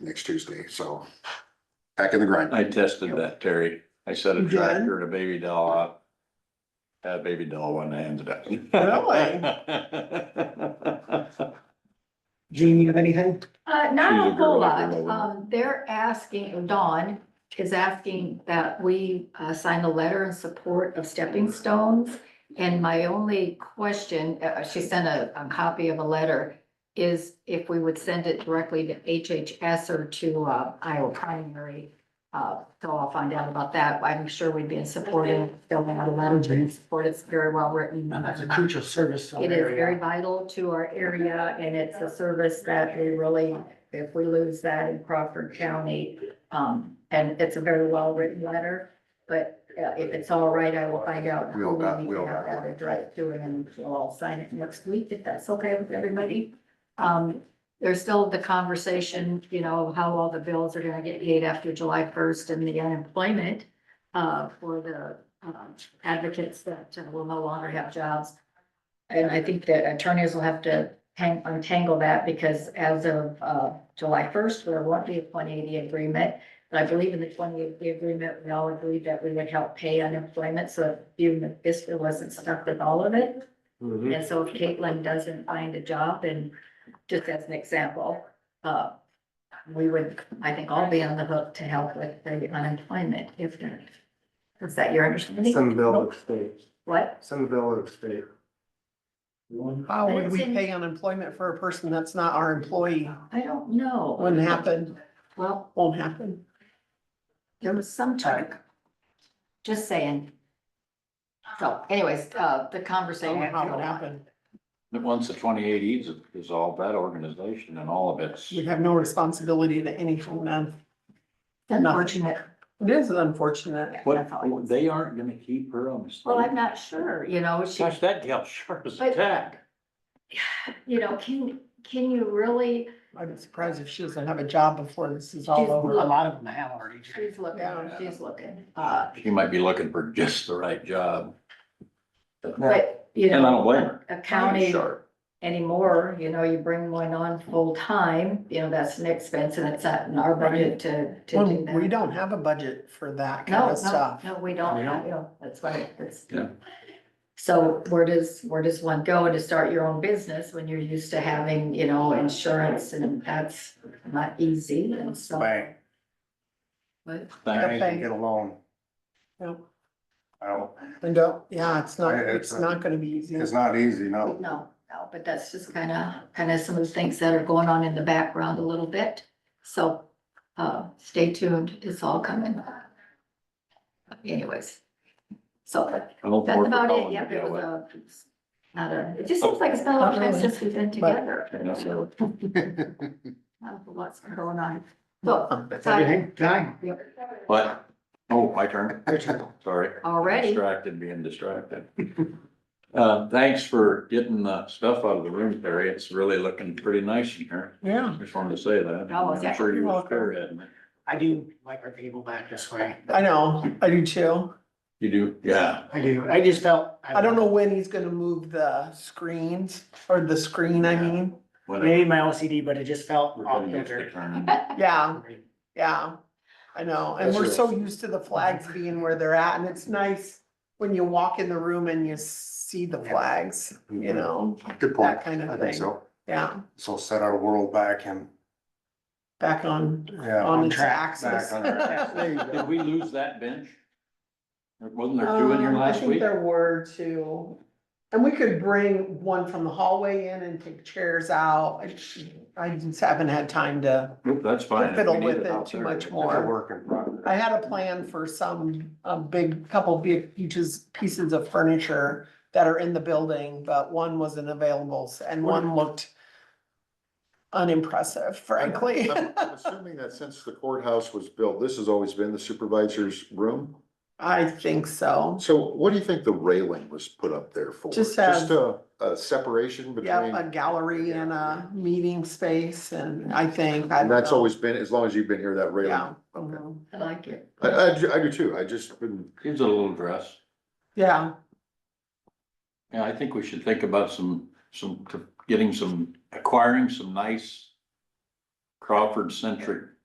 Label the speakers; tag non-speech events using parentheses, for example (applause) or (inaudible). Speaker 1: next Tuesday, so. Back in the grind.
Speaker 2: I tested that, Terry. I set a
Speaker 3: You did?
Speaker 2: tractor and a baby doll up. Had a baby doll when I ended up. Really?
Speaker 3: Jean, you have anything?
Speaker 4: Uh,
Speaker 2: She's
Speaker 4: not
Speaker 2: a
Speaker 4: a whole
Speaker 2: girl,
Speaker 4: lot.
Speaker 2: girl.
Speaker 4: Um, they're asking, Dawn is asking that we, uh, sign a letter in support of Stepping Stones. And my only question, uh, she sent a, a copy of a letter, is if we would send it directly to HHS or to, uh, Iowa Primary. Uh, so I'll find out about that. I'm sure we'd be in support of filling out a letter in support. It's very well written.
Speaker 3: No, that's a crucial service. to our
Speaker 4: It is very
Speaker 3: area.
Speaker 4: vital to our area and it's a service that we really, if we lose that in Crawford County, um, and it's a very well-written letter, but uh, if it's all right, I will find out. who
Speaker 1: We'll got-
Speaker 4: need to
Speaker 1: we'll
Speaker 4: have
Speaker 1: got-
Speaker 4: that addressed to and then we'll all sign it next week if that's okay with everybody. Um, there's still the conversation, you know, how all the bills are gonna get paid after July first and the unemployment uh, for the um, advocates that uh, will no longer have jobs. And I think that attorneys will have to hang, untangle that because as of, uh, July first, there won't be a twenty eighty agreement. But I believe in the twenty eighty agreement, we all agreed that we would help pay unemployment, so even if this wasn't stuck with all of it.
Speaker 5: Mm-hmm.
Speaker 3: Mhm.
Speaker 4: And so if Caitlin doesn't find a job, and just as an example, uh, we would, I think, all be on the hook to help with the unemployment if there. Is that your understanding?
Speaker 5: Some bill of state,
Speaker 4: What?
Speaker 5: some bill of state.
Speaker 3: How would we
Speaker 4: It's in-
Speaker 3: pay unemployment for a person that's not our employee?
Speaker 4: I don't know.
Speaker 3: Wouldn't happen,
Speaker 4: Well,
Speaker 3: won't happen.
Speaker 4: there was some talk. Just saying. So anyways, uh, the conversation.
Speaker 3: Don't know how it would happen.
Speaker 2: (laughs) That once the twenty eight is dissolved, that organization and all of its,
Speaker 3: You'd have no responsibility to anything then.
Speaker 4: Unfortunate.
Speaker 3: It is unfortunate.
Speaker 2: what, they aren't gonna keep her on the stage.
Speaker 4: Well, I'm not sure, you know, she,
Speaker 2: Gosh, that gal sharp as a
Speaker 4: But-
Speaker 2: tack.
Speaker 4: you know, can, can you really?
Speaker 3: I'd be surprised if she doesn't have a job before this is all over.
Speaker 4: A lot
Speaker 3: of them have already.
Speaker 4: She's looking,
Speaker 3: Yeah.
Speaker 4: she's looking, uh,
Speaker 2: She might be looking for just the right job.
Speaker 4: but, you know.
Speaker 2: And I don't blame her.
Speaker 4: A county
Speaker 2: Sharp.
Speaker 4: anymore, you know, you bring one on full-time, you know, that's an expense and it's not in our budget to, to do that.
Speaker 3: We don't have a budget for that kind
Speaker 4: No,
Speaker 3: of
Speaker 4: no,
Speaker 3: stuff.
Speaker 4: no, we don't,
Speaker 2: We don't.
Speaker 4: you know, that's right, that's.
Speaker 2: Yeah.
Speaker 4: So where does, where does one go to start your own business when you're used to having, you know, insurance and that's not easy and so.
Speaker 5: Bank,
Speaker 4: but-
Speaker 5: bank
Speaker 2: Thank-
Speaker 5: can get a loan.
Speaker 3: No.
Speaker 5: I don't,
Speaker 3: And don't, yeah, it's not,
Speaker 5: It's
Speaker 3: it's not gonna be easy.
Speaker 5: it's not easy, no.
Speaker 4: No, no, but that's just kind of, kind of some of the things that are going on in the background a little bit. So, uh, stay tuned, it's all coming. Anyways, so
Speaker 2: I don't
Speaker 4: that's
Speaker 2: work for
Speaker 4: about it,
Speaker 2: Colin
Speaker 4: yeah,
Speaker 2: to
Speaker 4: it
Speaker 2: get
Speaker 4: was
Speaker 2: with. Oh.
Speaker 4: a, not a, it just seems like it's been a long time since we've been
Speaker 3: But-
Speaker 4: together.
Speaker 2: Yeah.
Speaker 4: So, not a Lots going on, so,
Speaker 3: That's
Speaker 4: everything.
Speaker 3: Time.
Speaker 2: What? Oh, my turn. Sorry.
Speaker 4: already,
Speaker 2: Distracted, being distracted. (laughs) Uh, thanks for getting the stuff out of the room, Terry. It's really looking pretty nice in here.
Speaker 3: Yeah.
Speaker 2: Just wanted to say that.
Speaker 4: Oh, is
Speaker 2: I'm
Speaker 4: that-
Speaker 2: sure you
Speaker 3: You're
Speaker 2: were
Speaker 3: welcome.
Speaker 2: spearheading it.
Speaker 6: I do like our table back this way.
Speaker 3: I know, I do too.
Speaker 2: You do? Yeah.
Speaker 6: I do. I just felt.
Speaker 3: I don't know when he's gonna move the screens, or the screen, I mean,
Speaker 2: Whatever.
Speaker 6: Maybe my OCD, but it just felt
Speaker 2: We're
Speaker 6: off
Speaker 2: getting used to
Speaker 6: center.
Speaker 2: turning.
Speaker 3: yeah, yeah. I know, and we're so used to the flags being where they're at, and it's nice when you walk in the room and you see the flags, you
Speaker 7: Mm-hmm.
Speaker 3: know,
Speaker 5: Good
Speaker 3: that kind
Speaker 5: I
Speaker 3: of
Speaker 5: think
Speaker 3: thing,
Speaker 5: so.
Speaker 3: yeah,
Speaker 5: So set our world back and,
Speaker 3: back on,
Speaker 5: yeah,
Speaker 3: on
Speaker 6: on
Speaker 3: its
Speaker 6: track,
Speaker 3: axis.
Speaker 5: back on our track. (laughs)
Speaker 3: (laughs)
Speaker 5: There you
Speaker 2: Did
Speaker 5: go.
Speaker 2: we lose that bench? Wasn't there two in here
Speaker 3: Um,
Speaker 2: last
Speaker 3: I think
Speaker 2: week?
Speaker 3: there were two. And we could bring one from the hallway in and take chairs out. I just- I just haven't had time to,
Speaker 2: Oop, That's fine. if we
Speaker 3: fiddle
Speaker 2: need
Speaker 3: with it
Speaker 2: out
Speaker 3: too
Speaker 2: there.
Speaker 3: much more.
Speaker 5: It's a work in progress.
Speaker 3: I had a plan for some, a big, couple big pieces, pieces of furniture that are in the building, but one wasn't available and one looked unimpressive, frankly.
Speaker 7: I'm I'm assuming that since the courthouse was built, this has always been the supervisor's room.
Speaker 3: I think so.
Speaker 7: So what do you think the railing was put up there for?
Speaker 3: Just have-
Speaker 7: Just a, a separation between?
Speaker 3: Yep, a gallery and a meeting space and I think, I
Speaker 7: And
Speaker 3: don't
Speaker 7: that's
Speaker 3: know.
Speaker 7: always been, as long as you've been here, that railing?
Speaker 3: Yeah.
Speaker 7: Okay.
Speaker 3: mhm.
Speaker 4: I like it.
Speaker 7: I, I, do- I do too. I just been,
Speaker 2: Gives it a little dress.
Speaker 3: Yeah.
Speaker 2: Yeah, I think we should think about some, some, getting some, acquiring some nice Crawford centric